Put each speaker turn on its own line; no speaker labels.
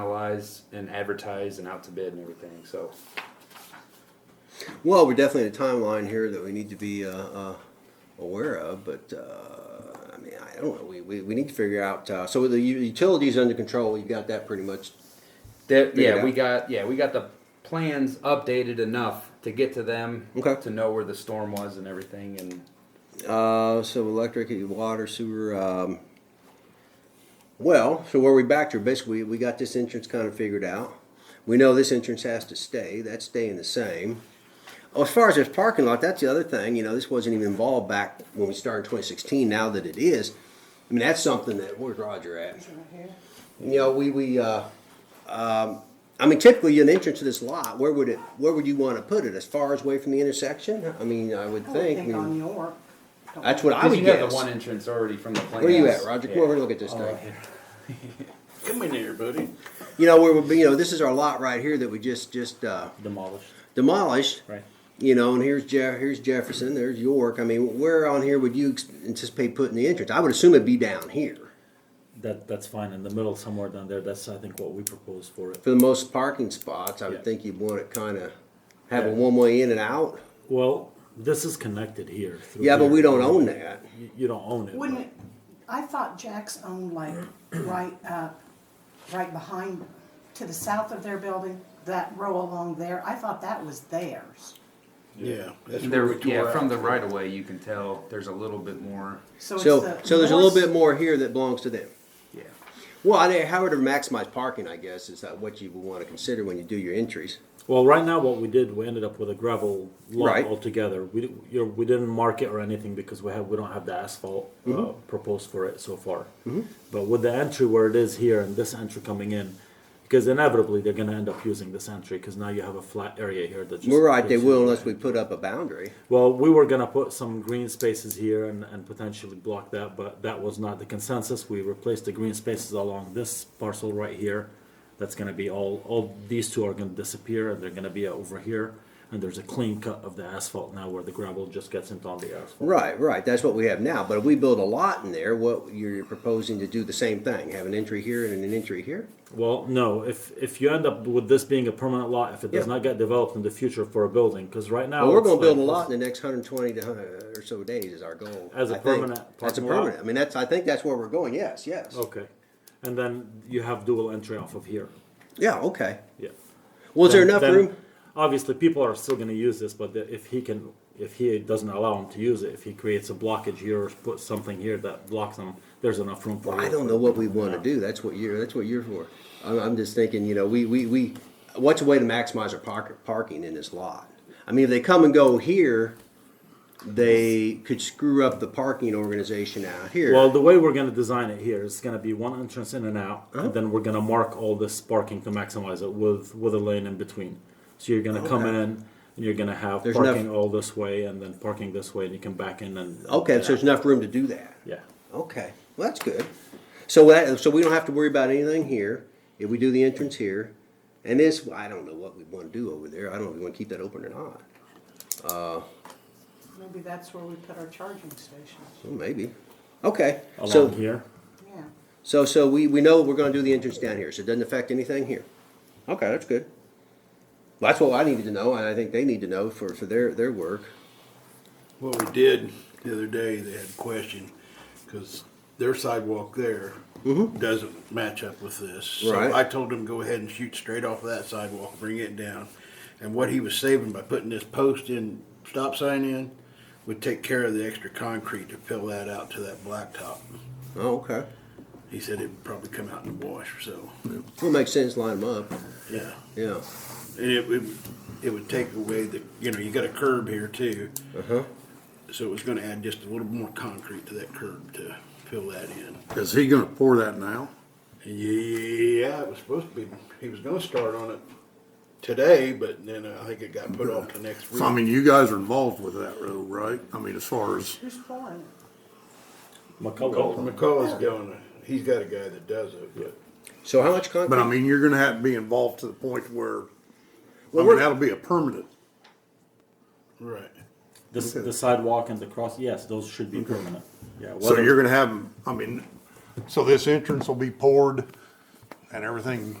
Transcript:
finalized and advertised and out to bid and everything. So
Well, we're definitely in a timeline here that we need to be uh, uh, aware of, but uh, I mean, I don't know. We, we, we need to figure out. Uh, so the u- utilities under control, we've got that pretty much.
that
Figured
yeah, we
out.
got yeah we got the plans updated enough to get to them
Okay.
to know where the storm was and everything. And
Uh, so electric, water, sewer. Um, well, so where we back to basically we got this entrance kind of figured out. We know this entrance has to stay. That's staying the same. Oh, as far as this parking lot, that's the other thing. You know, this wasn't even involved back when we started in 2016. Now that it is, I mean, that's something that where's Roger at? You know, we we. Uh, um, I mean, typically an entrance to this lot, where would it? Where would you want to put it? As far as away from the intersection? I mean, I would
I would
think. I
think
mean,
on York.
that's what I
because
would
you
guess.
have the one entrance already from the plans.
Where you at, Roger? Come
Yeah.
over and look at this thing.
Come in here, buddy.
You know, where we, be- you know, this is our lot right here that we just, just, uh,
Demolished.
demolished.
Right.
You know, and here's Jeff, here's Jefferson, there's York. I mean, where on here would you ex- anticipate putting the entrance? I would assume it'd be down here
That, that's fine, in the middle, somewhere down there, that's, I think, what we propose for it.
for the most parking spots. I would
Yeah.
think you'd want it kind of have a
Yeah.
one way in and out.
Well, this is connected here. through
Yeah, but
here.
we don't own that.
You, you don't own it.
Wouldn't it, I thought Jack's owned like right up, right behind, to the south of their building, that row along there, I thought that was theirs.
Yeah. That's where
There,
we tore
yeah,
out.
from the right of way, you can tell there's a little bit more.
So it's
So,
the.
so there's a little bit
north-
more here that belongs to them.
Yeah.
Well, I, how to maximize parking, I guess, is that what you would want to consider when you do your entries.
Well, right now, what we did, we ended up with a gravel lot
Right.
altogether. We, di- you know, we didn't mark it or anything because we have, we don't have the asphalt uh,
Mm-hmm.
proposed for it so far. But with the entry where it is here and this entry coming in, because inevitably they're gonna end up using this entry, because now you have a flat area here that just.
We're right, they
goes
will
in.
unless we put up a boundary.
Well, we were gonna put some green spaces here and, and potentially block that, but that was not the consensus. We replaced the green spaces along this parcel right here. That's gonna be all, all these two are gonna disappear and they're gonna be over here. And there's a clean cut of the asphalt now where the gravel just gets into on the asphalt.
Right, right. That's what we have now. But if we build a lot in there, what you're proposing to do the same thing, have an entry here and an entry here?
Well, no, if, if you end up with this being a permanent lot, if it does
Yeah.
not get developed in the future for a building, cause right now.
Well, we're
it's
gonna build a
like-
lot in the next hundred and twenty to hundred or so days is our goal.
As a
I think.
permanent
That's a
parking lot?
permanent. I mean, that's, I think that's where we're going. Yes, yes.
Okay, and then you have dual entry off of here,
Yeah, okay.
yeah.
Well, is there
then-
enough
then
room?
Obviously, people are still going to use this, but the- if he can, if he doesn't allow him to use it, if he creates a blockage here or puts something here that blocks him, there's enough room for.
Well, I
it.
don't know what we wanna do. That's what you're, that's what you're for. I'm, I'm just thinking, you know, we, we, we, what's a way to maximize our park, parking in this lot? I mean, if they come and go here, they could screw up the parking organization out here.
Well, the way we're going to design it here is going to be one entrance in and out,
Oh.
and then we're going to mark all this parking to maximize it with with a lane in between. So you're going to come
Okay.
in. And you're gonna have
There's enough-
parking all this way, and then parking this way, and you can back in and.
Okay, so there's
no.
enough room to do that.
Yeah,
Okay, well, that's good. So that, so we don't have to worry about anything here, if we do the entrance here. And this, I don't know what we wanna do over there, I don't know if we wanna keep that open or not,
Maybe that's where we put our charging stations,
well, maybe. Okay,
along
so,
here.
yeah.
so, so we, we know we're gonna do the entrance down here, so it doesn't affect anything here. Okay, that's good. Well, That's what I needed to know, and I think they need to know for, for their, their work.
What we did the other day, they had a question, because their sidewalk there doesn't match up with this.
Right.
So I told him, go ahead and shoot straight off of that sidewalk, bring it down. And what he was saving by putting this post in, stop sign in, would take care of the extra concrete to fill that out to that blacktop.
Oh, okay.
He said it would probably come out in the wash, so,
Well, makes sense, line them up,
yeah.
yeah.
And it would, it would take away the, you know, you got a curb here too.
Uh-huh.
So it was gonna add just a little more concrete to that curb to fill that in.
Is he gonna pour that now?
Yeah, it was supposed to be, he was gonna start on it today, but then I think it got put off to next week.
So, I mean, you guys are involved with that road, right? I mean, as far as,
Who's pouring it?
McCullough.
McCullough's going, he's got a guy that does it, but
So how much concrete?
but I mean, you're gonna have to be involved to the point where, I
Well,
mean,
we're-
that'll be a permanent.
right.
This, the sidewalk and the cross. Yes, those should be permanent. Yeah.
So
whether-
you're gonna have, 'em- I mean, so this entrance will be poured and everything